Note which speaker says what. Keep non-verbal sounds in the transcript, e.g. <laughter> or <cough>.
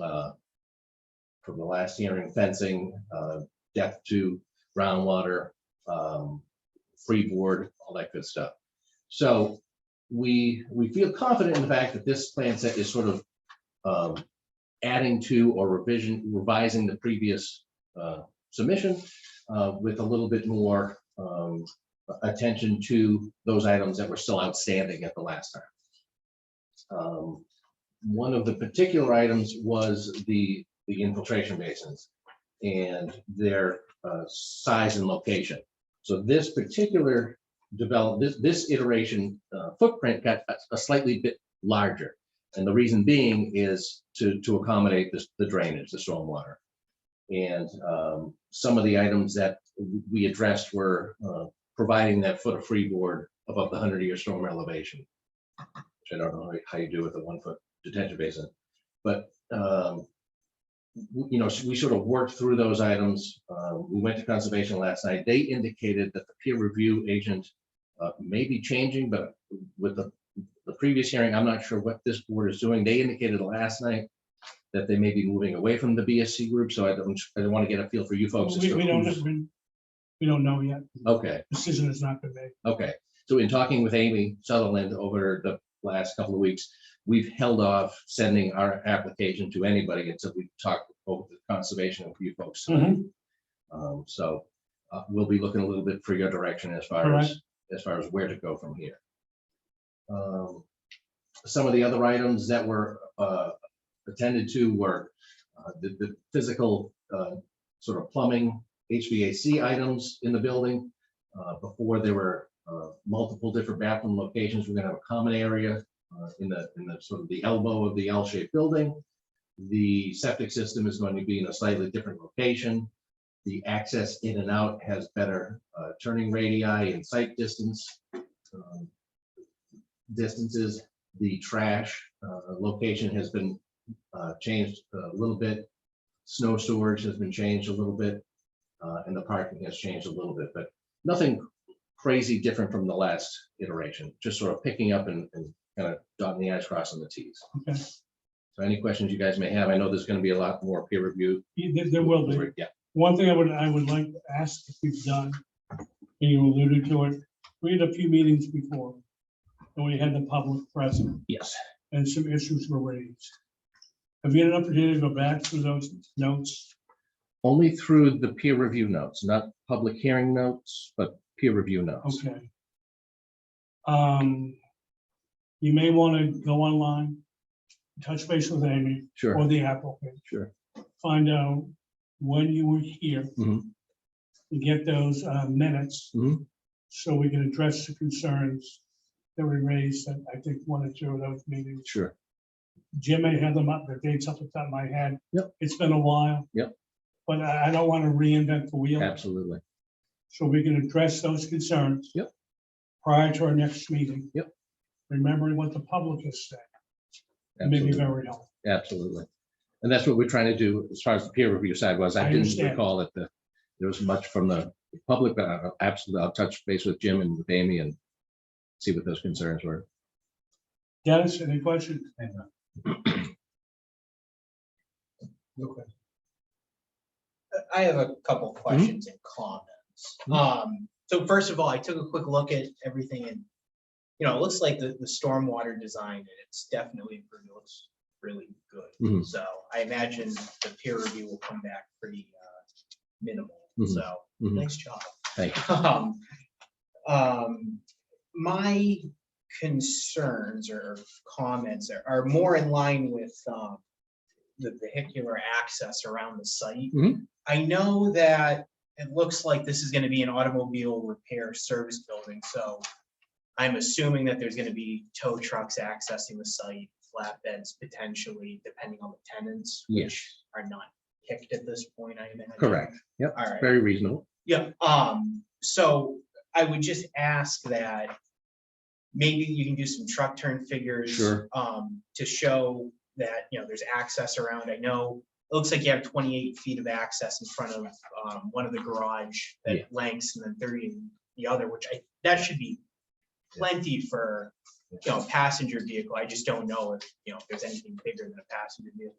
Speaker 1: uh, from the last hearing, fencing, uh, depth to groundwater, um, freeboard, all that good stuff. So we, we feel confident in the fact that this plan set is sort of um, adding to or revision, revising the previous uh, submission uh, with a little bit more um, attention to those items that were still outstanding at the last time. Um, One of the particular items was the, the infiltration basins and their uh, size and location. So this particular develop, this, this iteration uh, footprint got a- a slightly bit larger. And the reason being is to, to accommodate this- the drainage, the stormwater. And um, some of the items that we addressed were uh, providing that foot of freeboard above the hundred year storm elevation. Which I don't know how you do with a one foot detention basin, but um. w- You know, we sort of worked through those items. Uh, we went to conservation last night. They indicated that the peer review agent. Uh, may be changing, but with the, the previous hearing, I'm not sure what this board is doing. They indicated last night. That they may be moving away from the BSC group, so I don't, I don't want to get a feel for you folks. as
Speaker 2: We,
Speaker 1: to
Speaker 2: we don't,
Speaker 1: who's-
Speaker 2: we, we don't know yet.
Speaker 1: Okay.
Speaker 2: Decision is not been made.
Speaker 1: Okay, so in talking with Amy Sutherland over the last couple of weeks, we've held off sending our application to anybody until we talk over the conservation and you folks. Um, so, uh, we'll be looking a little bit for your direction as far
Speaker 2: Alright.
Speaker 1: as, as far as where to go from here. Um, Some of the other items that were, uh, attended to were, uh, the, the physical, uh, sort of plumbing, HVAC items in the building. Uh, before there were, uh, multiple different bathroom locations, we're gonna have a common area, uh, in the, in the sort of the elbow of the L-shaped building. The septic system is going to be in a slightly different location the access in and out has better uh, turning radii and sight distance. um, Distances, the trash uh, location has been uh, changed a little bit. Snow storage has been changed a little bit, uh, and the parking has changed a little bit, but nothing crazy different from the last iteration, just sort of picking up and kind of dotting the i's, crossing the t's.
Speaker 2: Okay.
Speaker 1: So any questions you guys may have, I know there's going to be a lot more peer review.
Speaker 2: Yeah, There, there will be.
Speaker 1: Yeah,
Speaker 2: One thing I would, I would like to ask if you've done, and you alluded to it, we had a few meetings before. And we had the public present
Speaker 1: yes.
Speaker 2: and some issues were raised. Have you had an opportunity to go back through those notes?
Speaker 1: Only through the peer review notes, not public hearing notes, but peer review notes.
Speaker 2: Okay. Um, you may want to go online, touch base with Amy
Speaker 1: Sure,
Speaker 2: or the applicant.
Speaker 1: sure.
Speaker 2: find out when you were here.
Speaker 1: Mhm.
Speaker 2: And get those uh, minutes.
Speaker 1: Mhm.
Speaker 2: So we can address the concerns that we raised, and I think one or two of those meetings.
Speaker 1: Sure.
Speaker 2: Jim may have them up, the dates off the top of my head.
Speaker 1: Yep.
Speaker 2: It's been a while.
Speaker 1: Yep.
Speaker 2: But I, I don't want to reinvent the wheel,
Speaker 1: Absolutely.
Speaker 2: so we can address those concerns.
Speaker 1: Yep.
Speaker 2: Prior to our next meeting.
Speaker 1: Yep.
Speaker 2: Remembering what the public has said, may be
Speaker 1: Absolutely.
Speaker 2: very helpful.
Speaker 1: Absolutely. And that's what we're trying to do as far as the peer review side was.
Speaker 2: I
Speaker 1: I didn't
Speaker 2: understand.
Speaker 1: recall that the, there was much from the public, but I'll- absolutely, I'll touch base with Jim and with Amy and see what those concerns were.
Speaker 2: Dennis, any questions? Okay.
Speaker 3: I have a couple questions and comments. Um, so first of all, I took a quick look at everything and, you know, it looks like the, the stormwater design, and it's definitely, improved. It looks really
Speaker 1: Mhm.
Speaker 3: good. So I imagine the peer review will come back pretty, uh, minimal,
Speaker 1: Mhm.
Speaker 3: so,
Speaker 1: Mhm.
Speaker 3: nice job.
Speaker 1: Thank
Speaker 3: <laughs> Um, um, my concerns or comments are, are more in line with, um, the vehicular access around the site.
Speaker 1: Mhm.
Speaker 3: I know that it looks like this is gonna be an automobile repair service building, so I'm assuming that there's gonna be tow trucks accessing the site, flatbeds potentially, depending on the tenants,
Speaker 1: Yes,
Speaker 3: which are not picked at this point, I imagine.
Speaker 1: correct. Yep,
Speaker 3: All right.
Speaker 1: very reasonable.
Speaker 3: Yeah, um, so I would just ask that maybe you can do some truck turn figures.
Speaker 1: Sure.
Speaker 3: Um, to show that, you know, there's access around. I know, it looks like you have twenty-eight feet of access in front of, um, one of the garage
Speaker 1: Yeah.
Speaker 3: that lengths and then thirty in the other, which I, that should be plenty for, you know, passenger vehicle. I just don't know if, you know, if there's anything bigger than a passenger vehicle.